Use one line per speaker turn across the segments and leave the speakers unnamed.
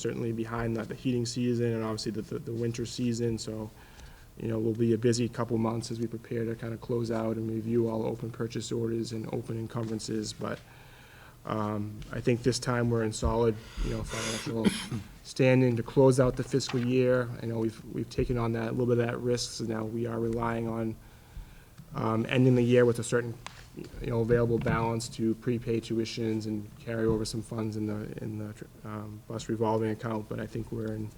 certainly behind the, the heating season and obviously the, the, the winter season, so, you know, will be a busy couple months as we prepare to kind of close out and review all open purchase orders and open encumbrances, but, um, I think this time we're in solid, you know, financial standing to close out the fiscal year. I know we've, we've taken on that, a little bit of that risk, so now we are relying on, um, ending the year with a certain, you know, available balance to prepay tuitions and carry over some funds in the, in the, um, bus revolving account, but I think we're in,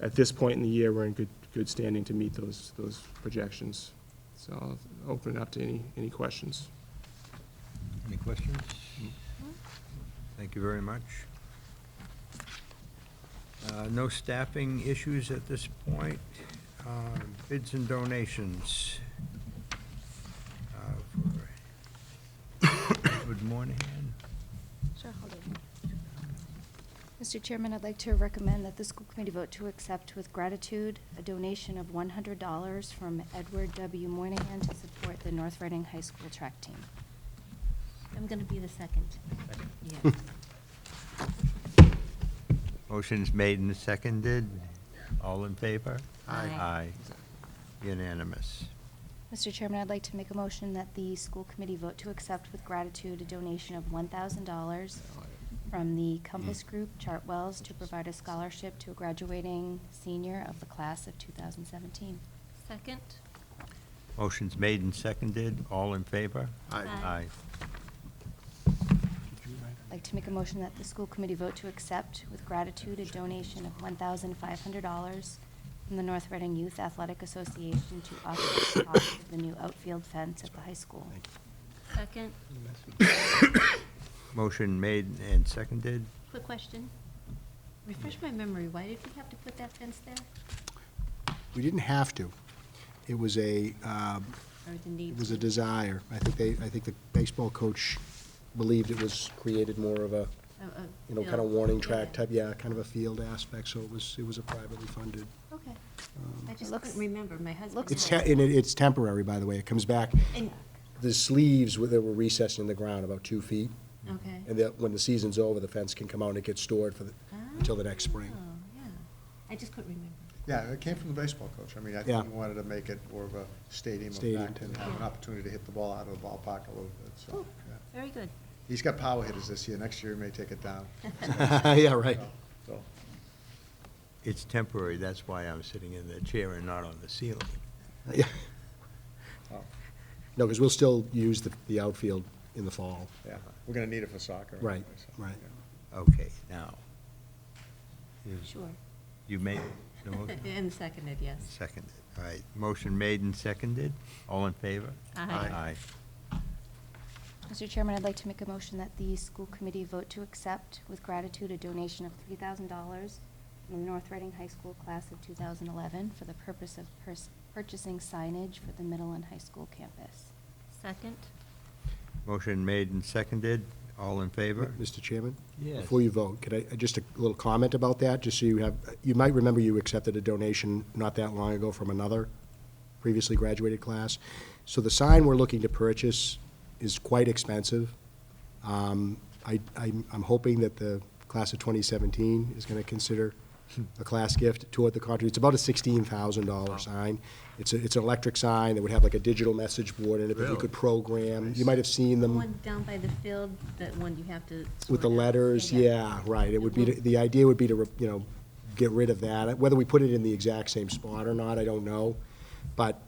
at this point in the year, we're in good, good standing to meet those, those projections. So I'll open it up to any, any questions.
Any questions? Thank you very much. Uh, No staffing issues at this point. Uh, Bids and donations. uh, for Edward Moynihan.
Sure, hold on. Mr. Chairman, I'd like to recommend that the school committee vote to accept with gratitude a donation of $100 from Edward W. Moynihan to support the North Reading High School track team.
I'm going to be the second. Yeah.
Motion's made and seconded. All in favor?
Aye.
Aye. Unanimous.
Mr. Chairman, I'd like to make a motion that the school committee vote to accept with gratitude a donation of $1,000 from the Compass Group Chartwells to provide a scholarship to a graduating senior of the class of 2017.
Second?
Motion's made and seconded. All in favor?
Aye.
Aye.
Aye.
I'd like to make a motion that the school committee vote to accept with gratitude a donation of $1,500 from the North Reading Youth Athletic Association to offset the cost of the new outfield fence at the high school.
Second?
Motion made and seconded.
Quick question. Refresh my memory, why did we have to put that fence there?
We didn't have to. It was a, um,
Or the need?
it was a
to?
desire. I think they, I think the baseball coach believed it was, created more of a,
A- a
you know, kind of
field.
warning
Oh, Yeah.
track type, yeah, kind of a field aspect, so it was, it was a privately funded.
Okay. I just
looks-
couldn't remember, my husband.
looks
It's, te-
had-
and it- it's temporary, by the way. It comes back,
and-
the sleeves, were- they were recessed in the ground about two feet,
Okay.
Mm-hmm. and that, when the season's over, the fence can come out and it gets stored for the, until the next spring.
Ah. Oh, yeah. I just couldn't remember.
Yeah, it came from the baseball coach. I mean, I
Yeah.
think he wanted to make it more of a stadium
Stadium.
effect and have an opportunity to hit the ball out of the ballpark a little bit, so.
Oh,
Cool.
yeah.
Very good.
He's got power hitters this year. Next year, he may take it down.
Ah.
Yeah, right.
So,
It's temporary, that's why I'm sitting in the chair and not on the ceiling.
Yeah.
oh,
No, because we'll still use the, the outfield in the fall.
yeah, we're gonna need it for soccer.
Right,
anyway, so,
right.
yeah.
Okay, now. you-
Sure.
You made the motion?
And seconded, yes.
Seconded, all right. Motion made and seconded, all in favor?
Aye.
Mr. Chairman, I'd like to make a motion that the school committee vote to accept with gratitude a donation of $3,000 from the North Reading High School class of 2011 for the purpose of pers- purchasing signage for the middle and high school campus.
Second?
Motion made and seconded, all in favor?
Mr. Chairman?
Yes.
Before you vote, could I, uh, just a little comment about that, just so you have, you might remember you accepted a donation not that long ago from another previously graduated class. So the sign we're looking to purchase is quite expensive. Um, I, I'm I'm hoping that the class of 2017 is going to consider a class gift toward the country. It's about a $16,000 sign. It's, a- it's an electric sign that would have like a digital message board in it that you could program. You might have seen
The
them
one down by the field, that one you have to.
with
sort
the
out.
letters, yeah, right, it would be, to- the idea would be to, re- you know, get rid of that, whether we put it in the exact same spot or not, I don't know, but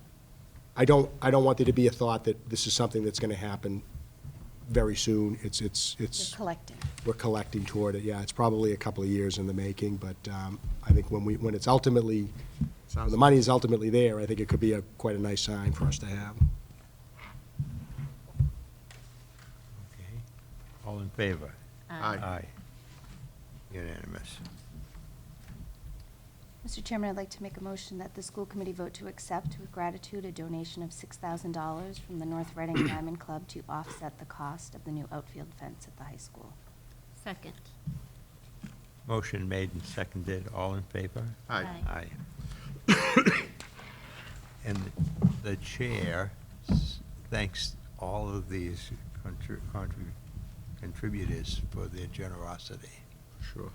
I don't, I don't want there to be a thought that this is something that's gonna happen very soon, it's, it's,
You're
it's,
collecting.
we're collecting toward it, yeah, it's probably a couple of years in the making, but, um, I think when we, when it's ultimately, when the money is ultimately there, I think it could be a, quite a nice sign for us to have.
Okay. All in favor?
Aye.
Aye. Unanimous.
Mr. Chairman, I'd like to make a motion that the school committee vote to accept with gratitude a donation of $6,000 from the North Reading Diamond Club to offset the cost of the new outfield fence at the high school.
Second?
Motion made and seconded, all in favor?
Aye.
Aye. And the chair s- thanks all of these contri- contri- contributors for their generosity.
Sure.